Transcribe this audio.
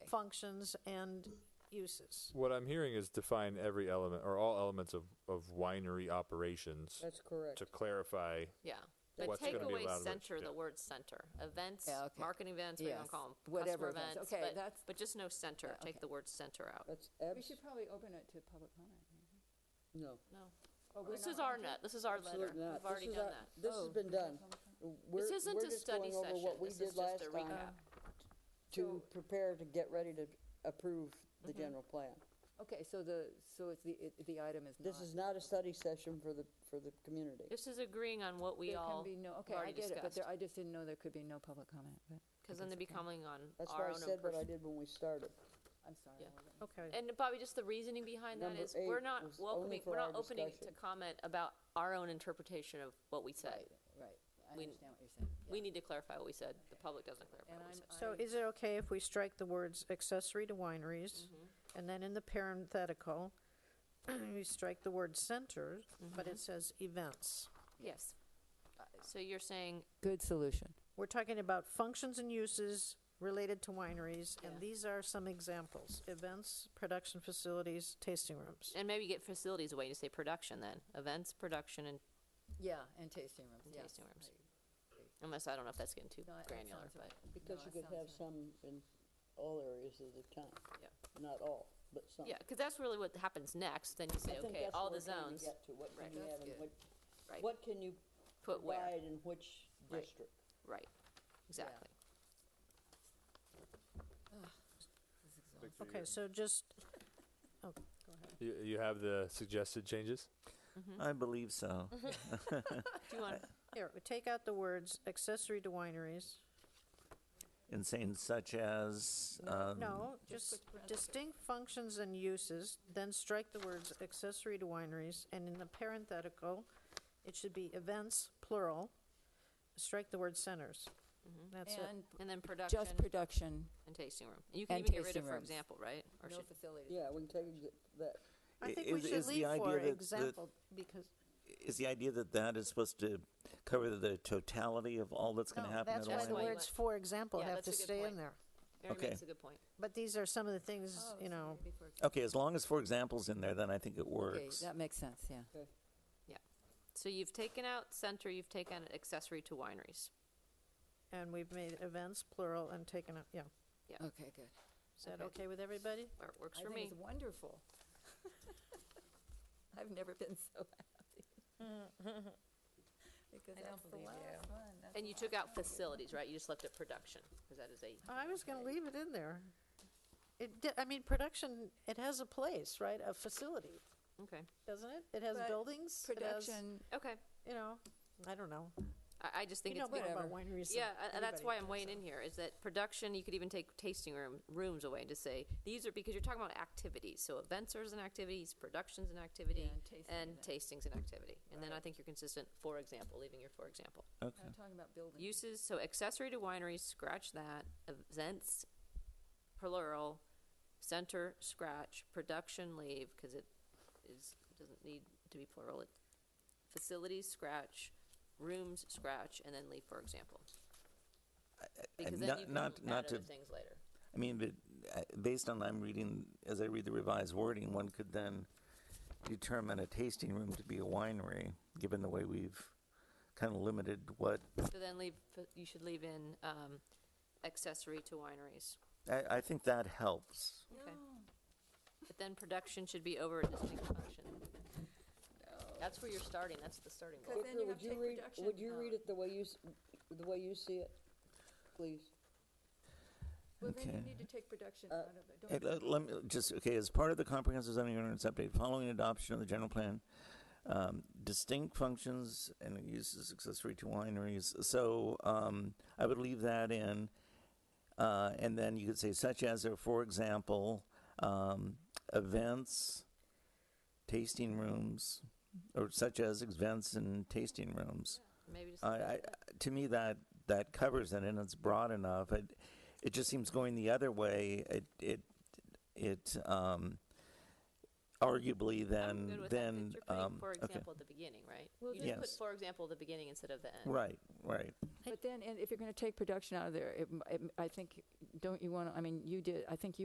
functions and uses. What I'm hearing is define every element or all elements of, of winery operations That's correct. to clarify. Yeah. But What's gonna take be away allowed, which- center, yeah. the word center. Events, Yeah, okay. marketing events, what do you want Yes, to call them? whatever Customer events. events, Okay, but- that's- But just no center. Yeah, okay. Take the word center out. That's We abs, should probably open it to public comment. maybe. no. No. Oh, we're This not is our allowed to? net, this is our letter. Absolutely not. We've This already is done our- that. Oh. This has been done. We're- This isn't we're a just study going over session. what we This is did last just a recap. time To So- prepare to get ready to approve Mm-hmm. the general plan. Okay, so the, so it's the, it- the item is not. This is not a study session for the, for the community. This is agreeing on what we There can all be no, okay, I already get it, but discussed. there, I just didn't know there could be no public comment, but. Because then they'd be coming on That's our why I own said what I impression. did when we started. I'm sorry. Yeah. I wasn't- Okay. And Bobby, just the reasoning behind that Number is we're eight not was only welcoming, for we're our not opening it to discussion. comment about our own interpretation of what we said. Right, right. I We- understand what you're saying. We need to clarify what we said. The public doesn't And clarify what we said. I'm- So I- is it okay if we strike the words accessory to wineries? And then in the parenthetical, we strike the word center, but it says events. Yes. Uh, So you're saying, Good solution. We're talking about functions and uses related to wineries, Yeah. and these are some examples. Events, production facilities, tasting rooms. and maybe get facilities away, you say production then, events, production, and Yeah, and tasting rooms, yes. tasting rooms. Unless, I don't know if that's getting too No, that granular, sounds but, right. Because No, you that could sounds have right. some in all areas of the town. Yeah. Not all, but some. yeah, because that's really what happens next, then you I say, think okay, that's all what the we're trying to zones, get to, What Right. can you That's have and good. what, right, what can you put where, provide in which Right. district? right, exactly. Okay, so just, You, you have the suggested changes? I believe so. Mm-hmm. Do you want, here, we take out the words accessory to wineries. In saying such as, um, No, just distinct functions and uses, then strike the words accessory to wineries, and in the parenthetical, it should be events, plural, strike the word centers. That's it. And and then production just production, and tasting room. And You can And even get rid tasting of, for rooms. example, right? Or no should, facilities. Yeah, we can take exa- that, I i- think we is- should is the leave idea for that- that- example, because, is the idea that that is supposed to cover the totality of all that's going to no, happen that's at a why the wine. winery? words for example Yeah, have that's to a good stay in point. there. Mary Okay. makes a good point. But these are some of the things, Oh, you so know, maybe for example- Okay, as long as for examples in there, then I think it Okay, works. that makes sense, yeah. So you've taken out center, you've taken out accessory to wineries. and we've made events plural and taken up, yeah. Okay, good. Is that Okay. okay with everybody? Or it works I for think me. it's wonderful. I've never been so happy. Because I don't that's the believe last one. that's And the you took last out facilities, right? You just left it production, because that is a, Uh-huh. I was gonna leave it in there. It, di- I mean, production, it has a place, right? A facility. okay, doesn't it? It has But buildings. it has, Production, okay. you know, I don't know. I, I just think You know it's, more more- about whatever. wineries. than yeah, a- and anybody that's why I I'm think, weighing so. in here, is that production, you could even take tasting room, rooms away to say, these are, because you're talking about activities. So events are an activity, production's an activity, and tasting and event. tasting's an activity. And then I think you're consistent, for example, leaving your for example. Okay. I'm talking about buildings. Uses, so accessory to wineries, scratch that. Events, plural. Center, scratch. Production, leave, because it is, doesn't need to be plural. It Facilities, scratch. Rooms, scratch, and then leave, for example. Because then not- you can not- add not other to- things later. I mean, but uh, based on I'm reading, as I read the revised wording, one could then determine a tasting room to be a winery, given the way we've kind of limited what, So then leave, you should leave in um, accessory to wineries. I, I think that helps. Okay. But then production should be over a distinct function. That's where you're starting, that's the starting Because goal. then Victor, you have would to you read, would take production you read out. it the way you, s- the way you see it, please? Well, then you Okay. need to take production Uh, out of it. Hey, Don't let, let me just okay. As part of the comprehensive zoning ordinance update, following adoption of the general plan, um, distinct functions and uses accessory to wineries. So um, I would leave that in, uh, and then you could say such as or for example, um, events, tasting rooms, or such as events and tasting rooms. Maybe just. I, I, to me, that that covers it, and it's broad enough. It it just seems going the other way. It it it um, arguably I'm then good with that, 'cause then you're putting, um, for okay. example, at the beginning, right? Well, You just put Yes. for example at the beginning instead of the end. right right But then, and if you're going to take production out of there, it m- it m- I think, don't you want to, I mean, you did, I think you